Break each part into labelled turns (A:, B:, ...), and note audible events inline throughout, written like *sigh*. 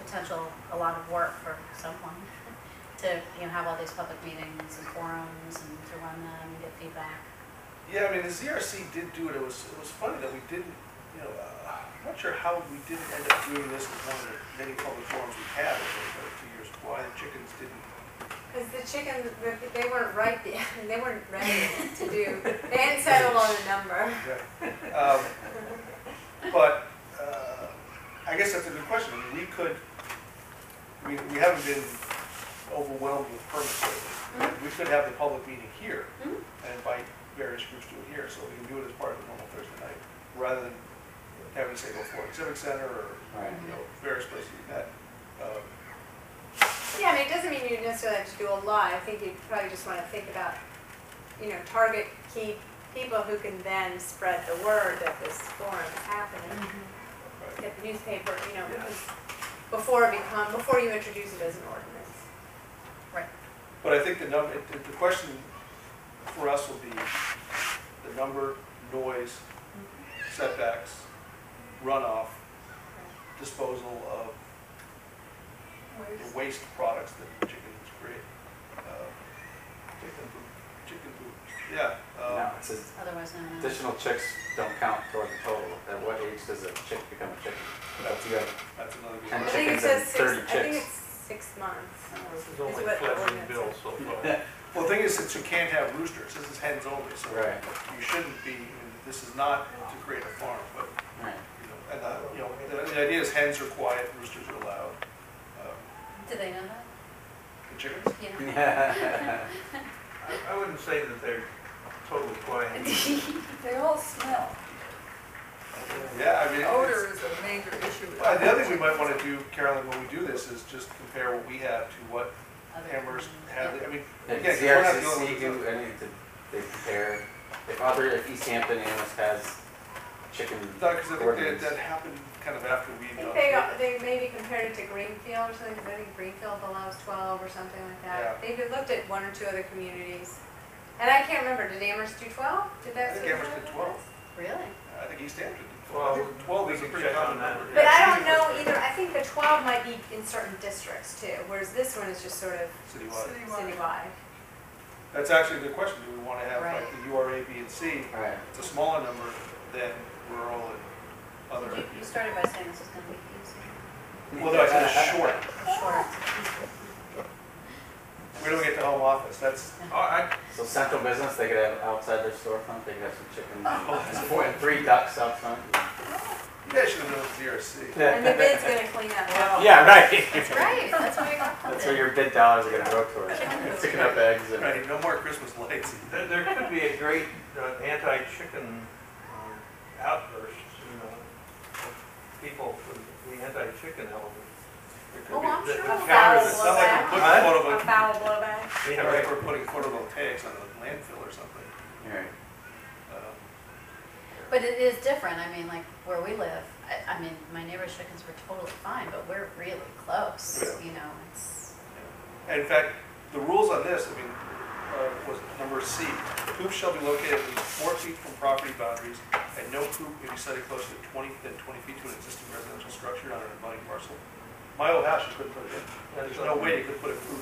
A: potential, a lot of work for someone to, you know, have all these public meetings and forums and to run them and get feedback.
B: Yeah, I mean, the ZRC did do it, it was, it was funny that we didn't, you know, uh, I'm not sure how we didn't end up doing this with one of the many public forums we had over the two years, why the chickens didn't.
C: Because the chicken, they weren't right, *laughs* they weren't ready to do, they hadn't settled on a number.
B: Um, But, uh, I guess that's a good question, I mean, we could, we, we haven't been overwhelmed with permits lately. We could have the public meeting here
A: Mhm.
B: and invite various groups to it here, so we can do it as part of the normal Thursday night, rather than having, say, go for Civic Center or
D: Right.
B: you know, various places we've met. Um,
C: Yeah, I mean, it doesn't mean you necessarily have to do a lot, I think you probably just want to think about, you know, target key people who can then spread the word that this forum is happening.
B: but-
C: Get the newspaper, you know, because before it become, before you introduce it as an ordinance.
B: But I think the number, the the question for us will be the number, noise, setbacks, runoff, disposal of the waste products that chickens create. Uh, Chicken poop, chicken poop, yeah. um,
D: No, it says
A: Otherwise, no, no.
D: additional chicks don't count toward the total. At what age does a chick become a chicken? That's you have
B: That's another good
D: And
C: I
B: one.
C: think it
D: chickens and
C: says six,
D: 30
C: I think
D: chicks.
C: it's six months.
E: It's
C: is
E: Oh, only
C: what the
E: fledgling
C: ordinance
E: bill
C: says.
E: so far.
B: Well, the thing is, that you can't have roosters, this is hens only, so
D: Right.
B: you shouldn't be, this is not to create a farm, but
D: Right.
B: You know, And, uh, you know, the, the idea is hens are quiet, roosters are loud. Um,
A: Do they know that?
B: The chickens?
A: You know?
D: Yeah.
E: I, I wouldn't say that they're totally quiet.
D: Mm-hmm.
A: *laughs*
F: They all smell.
B: Yeah, I mean, it's-
F: Odor is a major issue. with
B: uh, the other thing we might wanna do, Carolyn, when we do this, is just compare what we have to what
A: Other-
B: Amherst had, I mean,
D: And
B: again, we're not dealing
D: ZRCC
B: with this.
D: do any to they compare if other if East Hampton Amherst has chicken
B: No, cause I think that,
D: ordinance.
B: that happened kind of after we.
C: I think they, they maybe compared it to Greenfield or something, 'cause I think Greenfield allows twelve or something like that. They looked at one or two other communities. And I can't remember, did Amherst do twelve? Did
B: I
C: that?
B: think
C: seem
B: Amherst
C: right?
B: did twelve,
A: Really?
B: I think East Hampton did
E: Well,
B: twelve, I think twelve
E: we
B: is a
E: can
B: pretty
E: check on
B: common
E: that.
B: number.
C: uh, But I don't know either, I think the twelve might be in certain districts too, whereas this one is just sort of
B: Citywide,
F: Citywide.
C: citywide.
B: that's actually a good question, do we wanna have like
A: Right.
B: the URA, B, and C,
D: Right.
B: it's a smaller number than rural and other.
A: You- You started by saying this was gonna be easy,
B: Well, no, I said it's short.
A: or short.
B: We don't get the home office, that's,
E: Oh, I,
D: So central business they could have outside their storefront, they could have some chicken and four and three ducks out front.
B: you guys should have known it's ZRC.
C: And the bid's gonna clean up.
D: Yeah, right.
A: That's right, that's why I got
D: That's where your bid dollars are gonna go towards. Picking up eggs and
B: Right, no more Christmas lights.
E: there, there could be a great uh, anti-chicken um, outburst, you know, of people for the anti-chicken element. There could
C: Oh,
E: be-
C: I'm
E: the-
C: sure
E: the
C: we'll
E: counter
C: have
B: It's not like we're
E: Huh?
B: putting
C: A
B: photo,
C: foul blowback.
E: that's-
B: you
E: Yeah,
B: know, like
E: right.
B: we're putting photovoltaics on a landfill or something.
D: Right.
B: Um,
A: But it is different, I mean, like, where we live, I, I mean, my neighbor's chickens were totally fine, but we're really close,
B: Yeah.
A: you know, it's,
B: And in fact, the rules on this, I mean, uh, was number C, coops shall be located at least four feet from property boundaries, and no coop may be sited closer to twenty, than twenty feet to an existing residential structure on an abutting parcel. My old house, you couldn't put it in, there's no way you could put a coop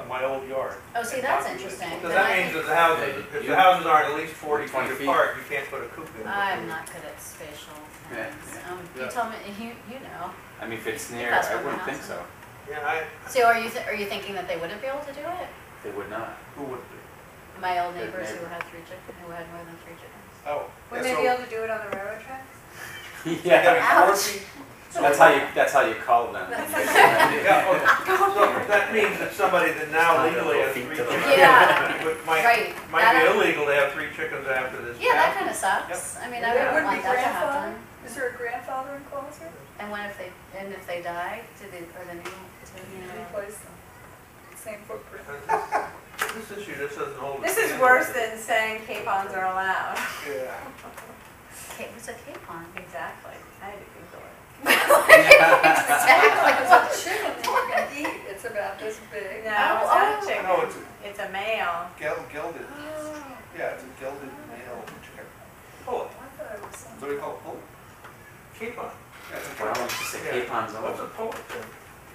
B: on my old yard.
A: oh, see,
B: And
A: that's
B: not use it.
A: interesting.
E: So
A: Then
E: that
A: I
E: means
A: think-
E: that the houses, if the houses are at least forty
D: 20
E: feet
D: feet.
E: apart, you can't put a coop in.
A: I'm not good at spatial
D: Yeah,
A: things,
D: yeah.
A: um, you
B: Yeah.
A: tell me, you, you know,
D: I mean, if it's near,
A: That's
D: I
A: what
D: wouldn't
A: my
D: think
A: house
D: so.
E: Yeah, I,
A: so are you, th- are you thinking that they wouldn't be able to do it?
D: They would not.
B: Who would do?
A: My old
D: Good
A: neighbors who
D: neighbor.
A: had three chickens, who had more than three chickens.
B: Oh.
C: Wouldn't
B: yeah,
C: they
B: so-
C: be able to do it on the railroad tracks?
D: yeah.
A: Ouch.
D: That's how you. That's how you call them.
E: yeah,
A: *laughs*
E: okay. so that means that somebody that now
D: It's not
E: legally has
D: a
E: three
D: little feet to the left.
E: chickens,
A: Yeah,
E: would- might,
A: right.
E: might
A: That-
E: be illegal to have three chickens after this.
A: Yeah, that
E: passage.
A: kind of sucks. I mean, I
F: They
A: wouldn't
F: wouldn't be
A: want that to happen.
F: grandfathered? Is there a grandfather in clause here?
A: And what if they, and if they die, do they, or the new, do you know?
F: Replace them. Same footprint.
E: This issue, this doesn't hold.
C: This is worse than saying capons are allowed. *laughs*
B: Yeah.
A: Ca- What's a capon?
C: Exactly, I had to Google it.
A: *laughs* Exactly.
F: It's a chicken that you can eat, it's about this big.
C: No, it's not a chicken.
B: No, it's
C: It's a male.
B: a gel- gilded, yeah, it's a gilded male chicken.
E: Pull
F: I thought it was
B: Is
F: some.
B: that what you call it? Pull?
E: it, keep on.
B: Yeah, it's a
D: Why
B: gel.
D: don't you just say capons
E: What's
D: over?
E: a pullet then?